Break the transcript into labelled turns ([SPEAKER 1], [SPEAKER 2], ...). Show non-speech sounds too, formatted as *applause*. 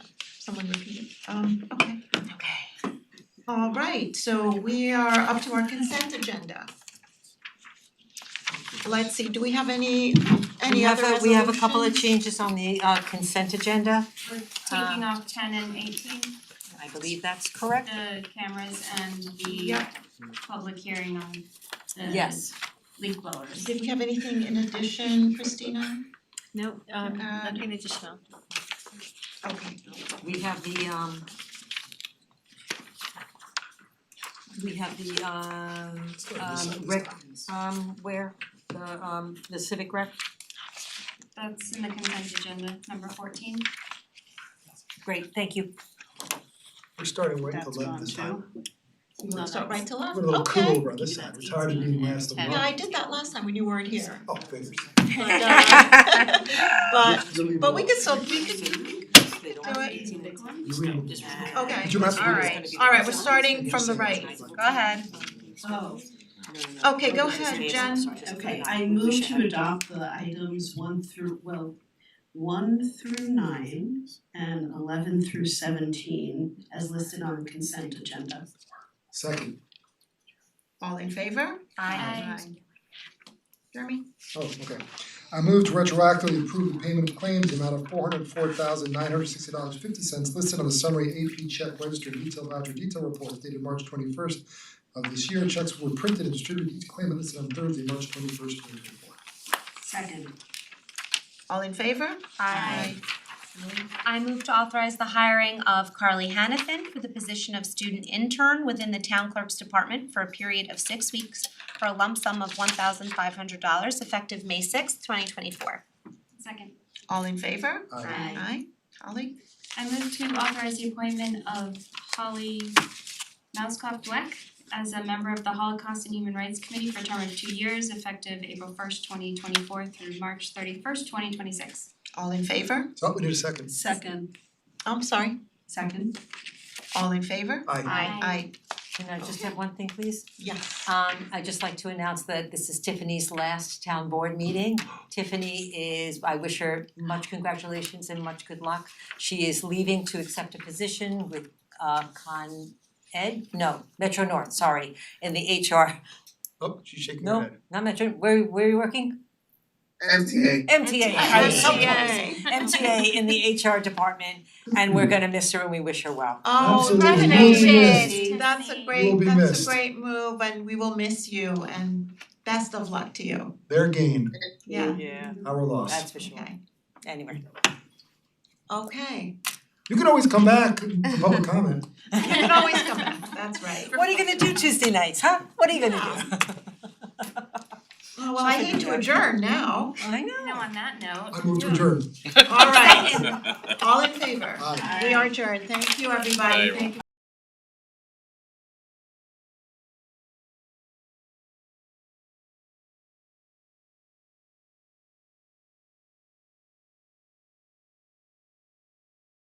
[SPEAKER 1] someone repeat it, um okay.
[SPEAKER 2] Okay.
[SPEAKER 1] Alright, so we are up to our consent agenda. Let's see, do we have any
[SPEAKER 2] We
[SPEAKER 1] any
[SPEAKER 2] have
[SPEAKER 1] other
[SPEAKER 2] a,
[SPEAKER 1] resolutions?
[SPEAKER 2] we have a couple of changes on the uh consent agenda. Uh,
[SPEAKER 3] We're
[SPEAKER 2] Um,
[SPEAKER 3] taking off ten and eighteen,
[SPEAKER 2] I believe that's correct.
[SPEAKER 3] the cameras and the
[SPEAKER 1] Yep.
[SPEAKER 3] public hearing on the
[SPEAKER 2] Yes.
[SPEAKER 3] leak blowers.
[SPEAKER 1] Did we have anything in addition, Christina?
[SPEAKER 4] No, um
[SPEAKER 1] Uh,
[SPEAKER 4] nothing additional.
[SPEAKER 1] Okay,
[SPEAKER 2] We have the um we have the um um rec, um where, the um the civic rec,
[SPEAKER 3] That's in the consent agenda, number fourteen.
[SPEAKER 2] great, thank you.
[SPEAKER 5] We're starting right to
[SPEAKER 6] That's
[SPEAKER 5] left
[SPEAKER 6] gone
[SPEAKER 5] this time.
[SPEAKER 1] you wanna start right to left,
[SPEAKER 5] We're a little cool
[SPEAKER 1] okay.
[SPEAKER 5] over on this
[SPEAKER 6] Give
[SPEAKER 5] side,
[SPEAKER 6] that
[SPEAKER 5] we're tired of
[SPEAKER 6] easy
[SPEAKER 5] being
[SPEAKER 6] and
[SPEAKER 5] last of the
[SPEAKER 6] ten.
[SPEAKER 5] month.
[SPEAKER 1] Yeah, I did that last time when you weren't here,
[SPEAKER 5] Oh, goodness.
[SPEAKER 1] but uh *laughs* but but we could still, we could
[SPEAKER 2] They don't
[SPEAKER 1] Do it. Okay.
[SPEAKER 5] Did you mess with
[SPEAKER 6] All
[SPEAKER 5] this?
[SPEAKER 6] right.
[SPEAKER 1] Alright, we're starting from the right.
[SPEAKER 2] Go
[SPEAKER 6] ahead.
[SPEAKER 7] Oh,
[SPEAKER 1] Okay, go ahead, Jen.
[SPEAKER 7] okay, I move to adopt the items one through, well, one through nine and eleven through seventeen as listed on the consent agenda.
[SPEAKER 5] Second,
[SPEAKER 1] all in favor?
[SPEAKER 3] Aye.
[SPEAKER 1] Jeremy?
[SPEAKER 5] oh, okay. I moved to retroactively approve the payment of claims in the amount of four hundred four thousand nine hundred sixty dollars fifty cents listed on the summary AP check register detail voucher detail report dated March twenty first of this year. Checks were printed and distributed to claimant listed on Thursday, March twenty first, twenty twenty four.
[SPEAKER 7] Second,
[SPEAKER 1] All in favor?
[SPEAKER 8] Aye. I move to authorize the hiring of Carly Hannafin for the position of student intern within the town clerk's department for a period of six weeks for a lump sum of one thousand five hundred dollars effective May sixth, twenty twenty four.
[SPEAKER 3] Second,
[SPEAKER 1] All in favor?
[SPEAKER 5] Aye.
[SPEAKER 3] Aye.
[SPEAKER 1] Aye. Holly?
[SPEAKER 3] I move to authorize the appointment of Holly Mouskoff Dweck as a member of the Holocaust and Human Rights Committee for a term of two years effective April first, twenty twenty four through March thirty first, twenty twenty six.
[SPEAKER 1] All in favor? Oh,
[SPEAKER 5] So we need a second.
[SPEAKER 7] second,
[SPEAKER 1] I'm sorry.
[SPEAKER 7] second,
[SPEAKER 1] All in favor?
[SPEAKER 5] Aye.
[SPEAKER 1] Aye.
[SPEAKER 2] Can I just have one thing, please?
[SPEAKER 1] Yes.
[SPEAKER 2] Um I'd just like to announce that this is Tiffany's last town board meeting. Tiffany is, I wish her much congratulations and much good luck. She is leaving to accept a position with uh Con Ed, no, Metro North, sorry, in the HR,
[SPEAKER 5] Oh, she's shaking her
[SPEAKER 2] no,
[SPEAKER 5] head.
[SPEAKER 2] not Metro, where where are you working?
[SPEAKER 5] MTA.
[SPEAKER 2] MTA,
[SPEAKER 1] I was so
[SPEAKER 2] MTA.
[SPEAKER 1] close.
[SPEAKER 2] MTA in the HR department and we're gonna miss her and we wish her well.
[SPEAKER 1] Oh,
[SPEAKER 5] Absolutely.
[SPEAKER 1] congratulations. That's a
[SPEAKER 5] You'll
[SPEAKER 1] great,
[SPEAKER 5] be
[SPEAKER 1] that's a
[SPEAKER 5] missed.
[SPEAKER 1] great move and we will miss you and best of luck to you.
[SPEAKER 5] Their gain,
[SPEAKER 1] Yeah,
[SPEAKER 6] Yeah.
[SPEAKER 5] our loss.
[SPEAKER 2] That's for sure,
[SPEAKER 1] okay.
[SPEAKER 2] anyway.
[SPEAKER 1] Okay.
[SPEAKER 5] You can always come back, public comment.
[SPEAKER 1] You can always come back, that's right.
[SPEAKER 2] What are you gonna do Tuesday nights, huh? What are you gonna do?
[SPEAKER 1] Oh, well, I hate to adjourn
[SPEAKER 2] *laughs*
[SPEAKER 1] now.
[SPEAKER 2] *laughs* I know.
[SPEAKER 3] Now on that note.
[SPEAKER 5] I move to adjourn.
[SPEAKER 1] All right. All in favor?
[SPEAKER 5] Aye.
[SPEAKER 1] We are adjourned. Thank you, everybody. Thank you.